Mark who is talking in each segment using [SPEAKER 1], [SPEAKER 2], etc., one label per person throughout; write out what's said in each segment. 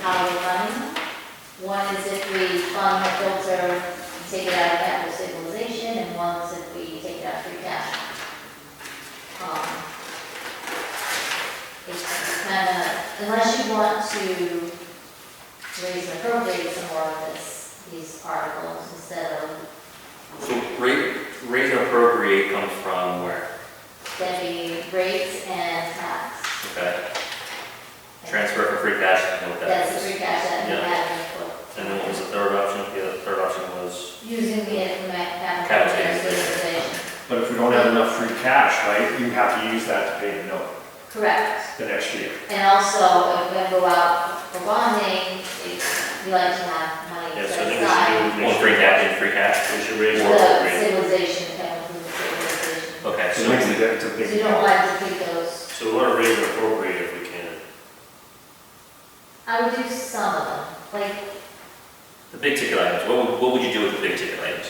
[SPEAKER 1] highway money. One is if we fund the filter and take it out of capital stabilization, and one is if we take it out of free cash. Um, It's kind of, unless you want to raise and appropriate some more of this, these articles instead of
[SPEAKER 2] So rate, rate and appropriate comes from where?
[SPEAKER 1] getting rates and tax.
[SPEAKER 2] Okay, transfer for free cash, I know what
[SPEAKER 1] That's the
[SPEAKER 2] that is.
[SPEAKER 1] free cash that we
[SPEAKER 2] Yeah.
[SPEAKER 1] have in the book.
[SPEAKER 2] And then what was the third option? The other- third option was,
[SPEAKER 1] Using the MAC
[SPEAKER 2] Capital
[SPEAKER 1] capital stabilization.
[SPEAKER 3] But if we don't have enough free cash, right, you have to use that to pay the note
[SPEAKER 1] Correct.
[SPEAKER 3] the next year.
[SPEAKER 1] And also, if we go out for bonding, it- we like to have money
[SPEAKER 4] Yeah,
[SPEAKER 1] set
[SPEAKER 4] so I think we should
[SPEAKER 1] aside.
[SPEAKER 4] do.
[SPEAKER 2] well, free cash and free cash.
[SPEAKER 4] We should raise more
[SPEAKER 1] The
[SPEAKER 4] appropriate.
[SPEAKER 1] stabilization, capital stabilization.
[SPEAKER 2] Okay,
[SPEAKER 3] So
[SPEAKER 2] so
[SPEAKER 3] it makes a
[SPEAKER 2] we-
[SPEAKER 3] difference, it's a
[SPEAKER 1] So
[SPEAKER 3] big
[SPEAKER 1] you don't like to keep those,
[SPEAKER 4] So we want to raise and appropriate if we can.
[SPEAKER 1] I would do some of them, like,
[SPEAKER 2] the big ticket items, what would, what would you do with the big ticket items?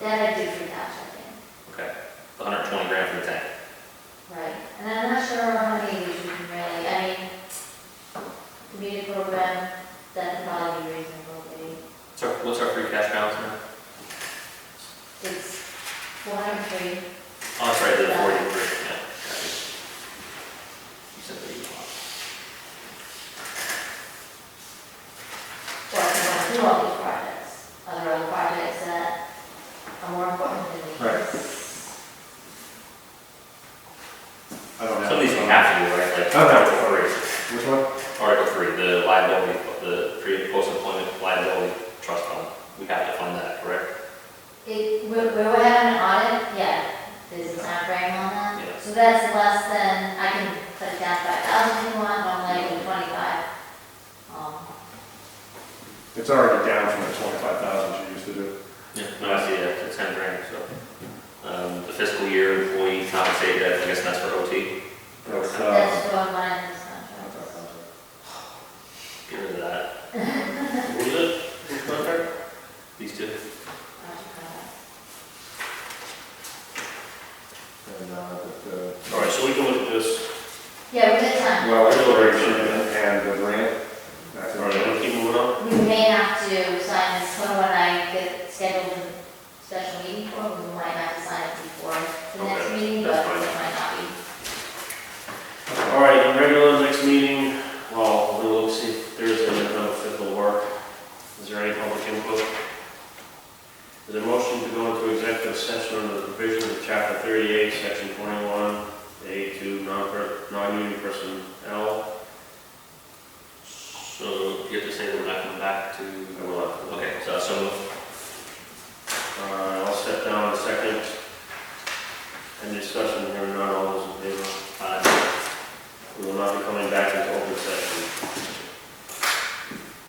[SPEAKER 1] that I do for cash, I think,
[SPEAKER 2] Okay, the hundred twenty grand for the tank.
[SPEAKER 1] right? And I'm not sure how many of these we can really, I mean, community program, that'd probably be reasonable, maybe.
[SPEAKER 2] What's our, what's our free cash balance now?
[SPEAKER 1] It's four hundred three,
[SPEAKER 2] Oh, sorry, the forty-three, yeah. got it. You said that you want.
[SPEAKER 1] well, we want to do all these projects, other other projects that are more important than these.
[SPEAKER 3] Right. I don't have.
[SPEAKER 2] Some of these we have to do, right, like
[SPEAKER 3] I don't have
[SPEAKER 2] Article three,
[SPEAKER 3] Which one?
[SPEAKER 2] Article three, the liability, the pre, post-employment liability trust fund, we have to fund that, correct?
[SPEAKER 1] It, we're, we're having an audit, yeah, there's a time frame on that.
[SPEAKER 2] Yeah.
[SPEAKER 1] So that's less than, I can put it down five thousand if you want, but I'm like twenty-five. Um,
[SPEAKER 3] It's already down from the twenty-five thousand you used to do.
[SPEAKER 2] Yeah. No, I see that, it's ten grand, so. Um, the fiscal year employee compensated, I guess that's for OT,
[SPEAKER 3] That's, uh,
[SPEAKER 4] Um.
[SPEAKER 1] That's what mine is,
[SPEAKER 3] um,
[SPEAKER 1] contract.
[SPEAKER 2] get rid of that,
[SPEAKER 4] What was it? Which contract?
[SPEAKER 2] these two.
[SPEAKER 3] and, uh, the-
[SPEAKER 4] All right, so we can look at this.
[SPEAKER 1] Yeah, we did
[SPEAKER 3] the-
[SPEAKER 1] time,
[SPEAKER 3] Well, it's and the grant. That's
[SPEAKER 4] All right,
[SPEAKER 3] it.
[SPEAKER 4] we keep moving on.
[SPEAKER 1] we may have to sign this one when I get scheduled a special meeting for, it. we might have to sign it before the next
[SPEAKER 4] Okay,
[SPEAKER 1] meeting, but
[SPEAKER 4] that's
[SPEAKER 1] it
[SPEAKER 4] fine.
[SPEAKER 1] might not be.
[SPEAKER 4] All right, in regular next meeting, well, we'll see if there's another fit will work. Is there any public input? Is there a motion to go into executive session under the provision of chapter thirty-eight, section twenty-one, A two, non-per, non-union personnel?
[SPEAKER 2] So you have to say we're not coming back to,
[SPEAKER 4] I will,
[SPEAKER 2] okay, so, so
[SPEAKER 4] uh, I'll step down in a second. And discussion, here none, all those in favor?
[SPEAKER 2] Uh,
[SPEAKER 4] We will not be coming back